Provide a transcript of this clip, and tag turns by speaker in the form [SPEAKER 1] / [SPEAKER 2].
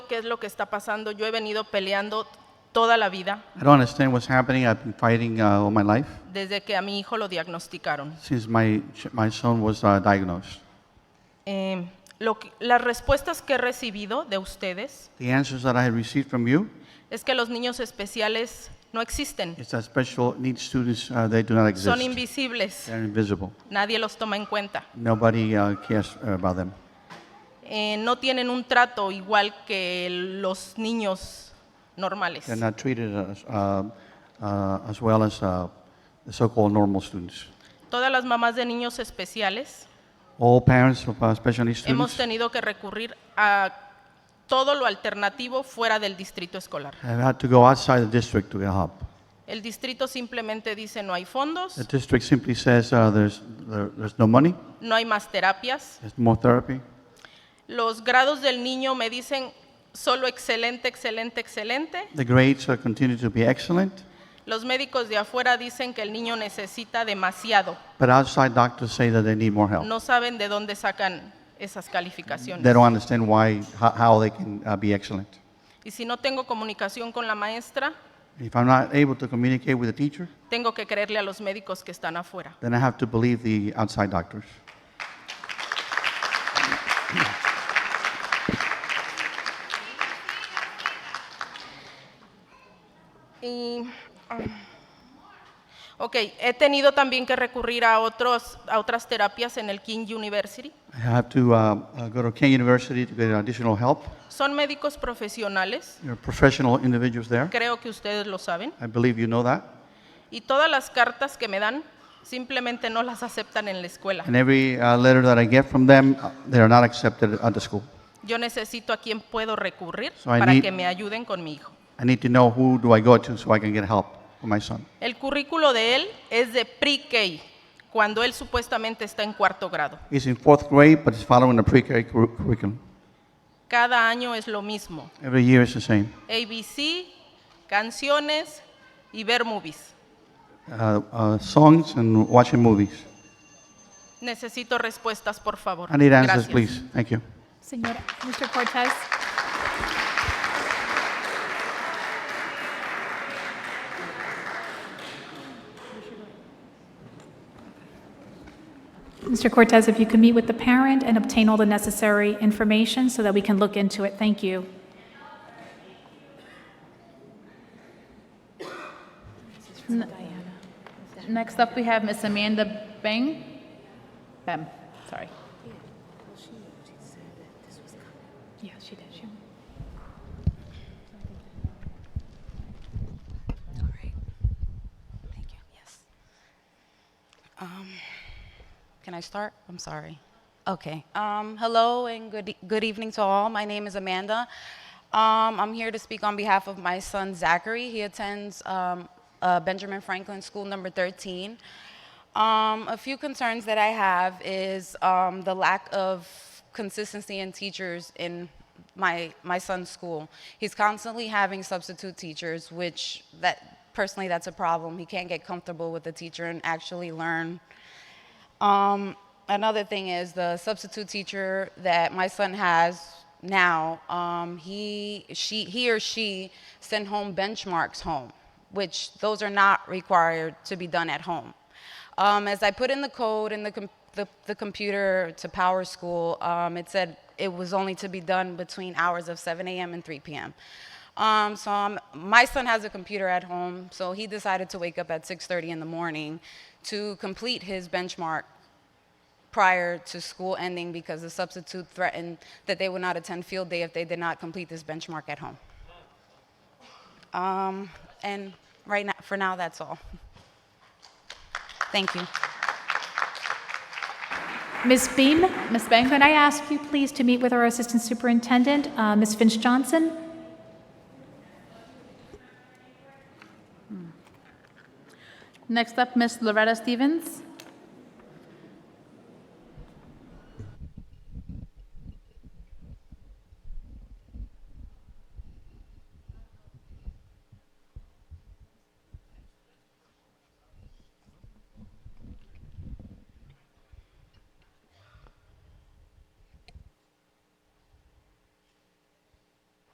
[SPEAKER 1] qué es lo que está pasando. Yo he venido peleando toda la vida
[SPEAKER 2] I don't understand what's happening. I've been fighting uh, all my life
[SPEAKER 1] desde que a mi hijo lo diagnosticaron.
[SPEAKER 2] since my, ch- my son was uh, diagnosed.
[SPEAKER 1] Eh, lo que- las respuestas que he recibido de ustedes
[SPEAKER 2] The answers that I had received from you
[SPEAKER 1] es que los niños especiales no existen,
[SPEAKER 2] is that special needs students, uh, they do not
[SPEAKER 1] son
[SPEAKER 2] exist.
[SPEAKER 1] invisibles,
[SPEAKER 2] They're invisible.
[SPEAKER 1] nadie los toma en cuenta,
[SPEAKER 2] Nobody uh, cares about them.
[SPEAKER 1] Eh, no tienen un trato igual que los niños normales.
[SPEAKER 2] They're not treated as, uh, uh, as well as uh, the so-called normal students.
[SPEAKER 1] Todas las mamás de niños especiales
[SPEAKER 2] All parents of uh, special needs
[SPEAKER 1] hemos
[SPEAKER 2] students
[SPEAKER 1] tenido que recurrir a todo lo alternativo fuera del distrito escolar.
[SPEAKER 2] have had to go outside the district to get help.
[SPEAKER 1] El distrito simplemente dice no hay
[SPEAKER 2] The
[SPEAKER 1] fondos,
[SPEAKER 2] district simply says uh, there's, there, there's no money,
[SPEAKER 1] no hay más terapias.
[SPEAKER 2] there's more therapy.
[SPEAKER 1] Los grados del niño me dicen solo excelente, excelente, excelente.
[SPEAKER 2] The grades uh, continue to be excellent,
[SPEAKER 1] Los médicos de afuera dicen que el niño necesita demasiado.
[SPEAKER 2] but outside doctors say that they need more help.
[SPEAKER 1] No saben de dónde sacan esas
[SPEAKER 2] They
[SPEAKER 1] calificaciones.
[SPEAKER 2] don't understand why, how, how they can uh, be excellent.
[SPEAKER 1] Y si no tengo comunicación con la maestra,
[SPEAKER 2] If I'm not able to communicate with the teacher,
[SPEAKER 1] tengo que creerle a los médicos que están afuera.
[SPEAKER 2] then I have to believe the outside doctors.
[SPEAKER 1] Y, ah, ok, he tenido también que recurrir a, otros, a otras terapias en el King University.
[SPEAKER 2] I have to uh, uh, go to King University to get additional help.
[SPEAKER 1] Son médicos profesionales,
[SPEAKER 2] There are professional individuals there.
[SPEAKER 1] creo que ustedes lo saben.
[SPEAKER 2] I believe you know that.
[SPEAKER 1] Y todas las cartas que me dan simplemente no las aceptan en la escuela.
[SPEAKER 2] And every uh, letter that I get from them, uh, they are not accepted at the school.
[SPEAKER 1] Yo necesito a quien puedo recurrir
[SPEAKER 2] So I
[SPEAKER 1] para
[SPEAKER 2] need-
[SPEAKER 1] que me ayuden con mi hijo.
[SPEAKER 2] I need to know who do I go to so I can get help for my son.
[SPEAKER 1] El currículo de él es de pre-K, cuando él supuestamente está en cuarto grado.
[SPEAKER 2] He's in fourth grade, but he's following the pre-K curr- curriculum.
[SPEAKER 1] Cada año es lo mismo.
[SPEAKER 2] Every year is the same.
[SPEAKER 1] ABC, canciones y ver movies.
[SPEAKER 2] Uh, uh, songs and watching movies.
[SPEAKER 1] Necesito respuestas, por favor.
[SPEAKER 2] I need answers,
[SPEAKER 1] Gracias.
[SPEAKER 2] please. Thank you.
[SPEAKER 3] Señora, Mr. Cortez. Mr. Cortez, if you could meet with the parent and obtain all the necessary information so that we can look into it, thank you.
[SPEAKER 4] Next up, we have Miss Amanda Beng. Bem, sorry. Yeah, she did. She
[SPEAKER 5] All right. Thank you. Yes. Um, Can I start? I'm sorry. Okay. Um, Hello and good e- good evening to all. My name is Amanda. Um, I'm here to speak on behalf of my son Zachary. He attends um, uh, Benjamin Franklin School Number 13. Um, A few concerns that I have is um, the lack of consistency in teachers in my my son's school. He's constantly having substitute teachers, which that personally that's a problem. He can't get comfortable with the teacher and actually learn. Um, another thing is the substitute teacher that my son has now. Um, he she he or she sent home benchmarks home, which those are not required to be done at home. Um, as I put in the code in the, com- the, the computer to Power School, um, it said it was only to be done between hours of 7 a.m. and 3 p.m. Um, so um, my son has a computer at home, so he decided to wake up at 6:30 in the morning to complete his benchmark prior to school ending because the substitute threatened that they would not attend field day if they did not complete this benchmark at home. Um, and right now, for now, that's all. Thank you.
[SPEAKER 3] Ms. Beam, Ms. Bang, could I ask you please to meet with our Assistant Superintendent, uh, Ms. Finch Johnson?
[SPEAKER 4] did. Next up, Miss Loretta Stevens.